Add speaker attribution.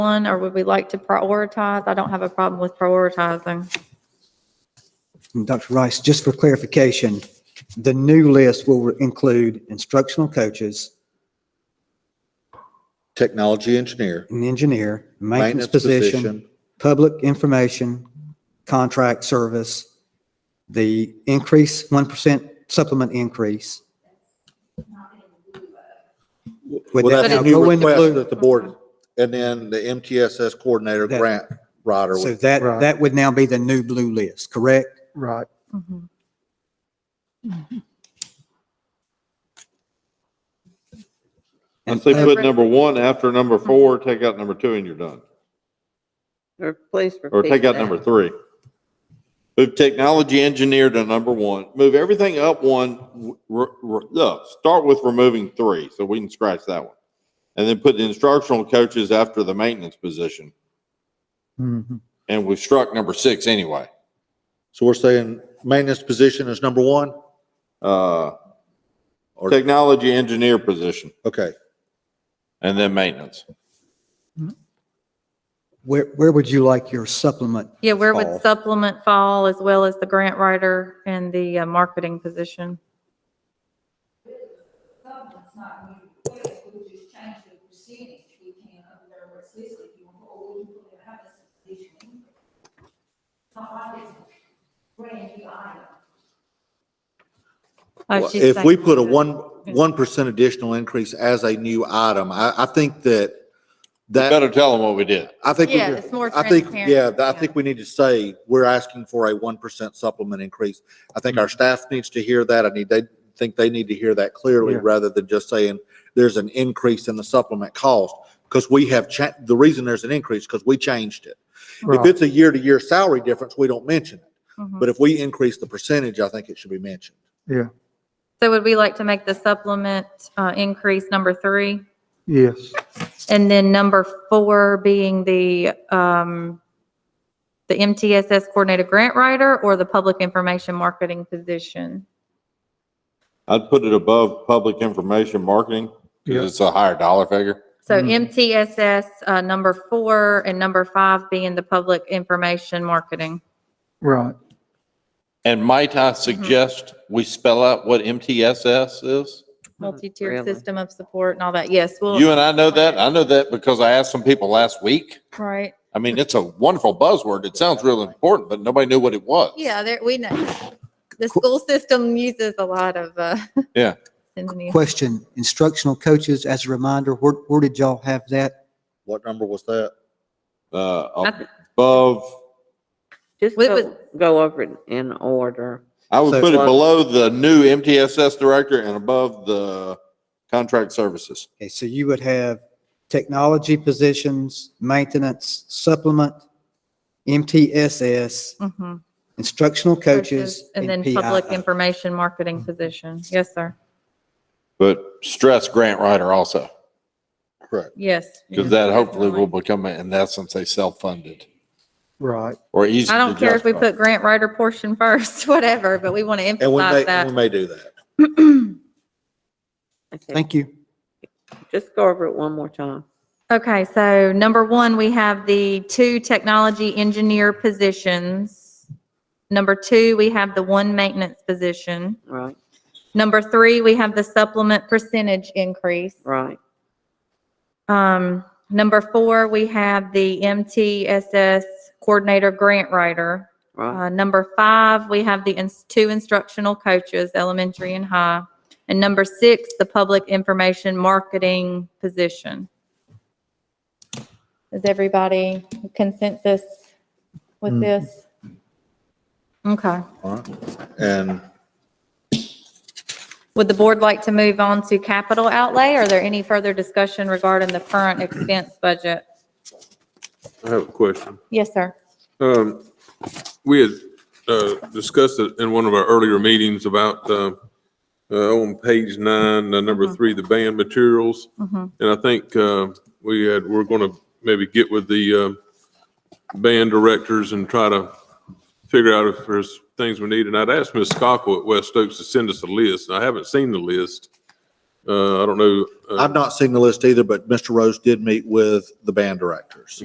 Speaker 1: one, or would we like to prioritize? I don't have a problem with prioritizing.
Speaker 2: And Dr. Rice, just for clarification, the new list will include instructional coaches,
Speaker 3: technology engineer,
Speaker 2: an engineer, maintenance
Speaker 3: maintenance
Speaker 2: position,
Speaker 3: position,
Speaker 2: public information, contract service, the increase, 1% supplement increase. Would that
Speaker 3: Well, that's
Speaker 2: now
Speaker 3: a new
Speaker 2: go in the
Speaker 3: request
Speaker 2: blue?
Speaker 3: that the board, and then the MTSS coordinator
Speaker 2: That-
Speaker 3: grant writer.
Speaker 2: So
Speaker 3: would-
Speaker 2: that,
Speaker 4: Right.
Speaker 2: that would now be the new blue list, correct?
Speaker 4: Right.
Speaker 1: Mhm.
Speaker 5: I
Speaker 2: And
Speaker 5: say
Speaker 2: pub-
Speaker 5: put number one after number four, take out number two and you're done.
Speaker 6: Replace.
Speaker 5: Or take out number three. Move technology engineer to number one. Move everything up one. w- r- r- no, start with removing three, so we can scratch that one. And then put instructional coaches after the maintenance position.
Speaker 2: Mhm.
Speaker 5: And we struck number six anyway.
Speaker 3: So we're saying maintenance position is number one?
Speaker 5: Uh,
Speaker 3: Or-
Speaker 5: technology engineer position
Speaker 3: Okay,
Speaker 5: and then maintenance.
Speaker 2: Where, where would you like your supplement?
Speaker 1: Yeah, where
Speaker 2: fall?
Speaker 1: would supplement fall as well as the grant writer and the uh, marketing position?
Speaker 7: supplement's not going to be replaced, we'll just change the percentage we can of their what's listed, you want, or we can have a subdivision. It's Not like it's a brand new item.
Speaker 1: Uh, she's
Speaker 3: if we
Speaker 1: saying-
Speaker 3: put a one, one percent additional increase as a new item, I, I think that that,
Speaker 5: Better tell them what we did.
Speaker 3: I think. we-
Speaker 1: Yeah, it's more
Speaker 3: I think,
Speaker 1: transparent,
Speaker 3: yeah, I
Speaker 1: yeah.
Speaker 3: think we need to say, we're asking for a one percent supplement increase. I think our staff needs to hear that. I need, they think they need to hear that clearly
Speaker 4: Yeah.
Speaker 3: rather than just saying there's an increase in the supplement cost. Because we have cha, the reason there's an increase, because we changed it. If
Speaker 4: Right.
Speaker 3: it's a year-to-year salary difference, we don't mention it.
Speaker 1: Mhm.
Speaker 3: But if we increase the percentage, I think it should be mentioned.
Speaker 1: So would we like to make the supplement uh, increase number three?
Speaker 4: Yes.
Speaker 1: And then number four being the, um, the MTSS coordinator grant writer or the public information marketing position?
Speaker 5: I'd put it above public information marketing
Speaker 4: Yeah.
Speaker 5: because it's a higher dollar figure.
Speaker 1: So
Speaker 3: Hmm.
Speaker 4: Mhm.
Speaker 1: MTSS, uh, number four and number five being the public information marketing.
Speaker 4: Right.
Speaker 5: And might I
Speaker 1: Mm-hmm.
Speaker 5: suggest we spell out what MTSS is?
Speaker 1: Multi-tiered
Speaker 6: Really?
Speaker 1: system of support and all that. Yes,
Speaker 5: You
Speaker 1: well,
Speaker 5: and I know that. I know that because I asked some people last week.
Speaker 1: right.
Speaker 5: I mean, it's a wonderful buzzword. It sounds real important, but nobody knew what it was.
Speaker 1: Yeah, there, we know. The school system uses a lot of, uh.
Speaker 5: Yeah.
Speaker 1: synonyms.
Speaker 2: Question, instructional coaches, as a reminder, where, where did y'all have that?
Speaker 3: What number was that?
Speaker 5: Uh,
Speaker 1: Nothing.
Speaker 5: above,
Speaker 6: Just
Speaker 1: Wait,
Speaker 6: go, go over it in order.
Speaker 5: I would
Speaker 2: So-
Speaker 5: put it below the new MTSS director and above the contract services.
Speaker 2: Okay, so you would have technology positions, maintenance, supplement, MTSS,
Speaker 1: Mhm.
Speaker 2: instructional coaches,
Speaker 1: And then public information marketing position. Yes, sir.
Speaker 5: But stress grant writer also,
Speaker 3: Correct.
Speaker 1: Yes.
Speaker 5: because
Speaker 1: yes,
Speaker 5: that hopefully
Speaker 1: definitely.
Speaker 5: will become, in essence, a self-funded
Speaker 4: Right.
Speaker 5: or easy.
Speaker 1: I don't
Speaker 5: to
Speaker 1: care if we
Speaker 5: justify.
Speaker 1: put grant writer portion first, whatever, but we want to
Speaker 3: And we may,
Speaker 1: emphasize that.
Speaker 3: and we may do that.
Speaker 6: Okay,
Speaker 2: Thank you.
Speaker 6: just go over it one more time.
Speaker 1: Okay, so number one, we have the two technology engineer positions. Number two, we have the one maintenance position.
Speaker 6: Right,
Speaker 1: Number three, we have the supplement percentage increase.
Speaker 6: right,
Speaker 1: Um, number four, we have the MTSS coordinator grant writer.
Speaker 6: right,
Speaker 1: Uh, number five, we have the ins- two instructional coaches, elementary and high. And number six, the public information marketing position. Is everybody consensus with
Speaker 4: Mm.
Speaker 1: this? Okay.
Speaker 3: All right. And
Speaker 1: Would the board like to move on to capital outlay? Are there any further discussion regarding the current expense budget?
Speaker 8: I have a question.
Speaker 1: Yes, sir.
Speaker 8: Um, we had, uh, discussed it in one of our earlier meetings about, uh, uh, on page nine, uh, number three, the band materials.
Speaker 1: Mhm.
Speaker 8: And I think, uh, we had, we're gonna maybe get with the, uh, band directors and try to figure out if there's things we need. And I'd asked Ms. Cockle at West Oaks to send us a list. I haven't seen the list. Uh, I don't know. uh,
Speaker 3: I've not seen the list either, but Mr. Rose did meet with the band directors.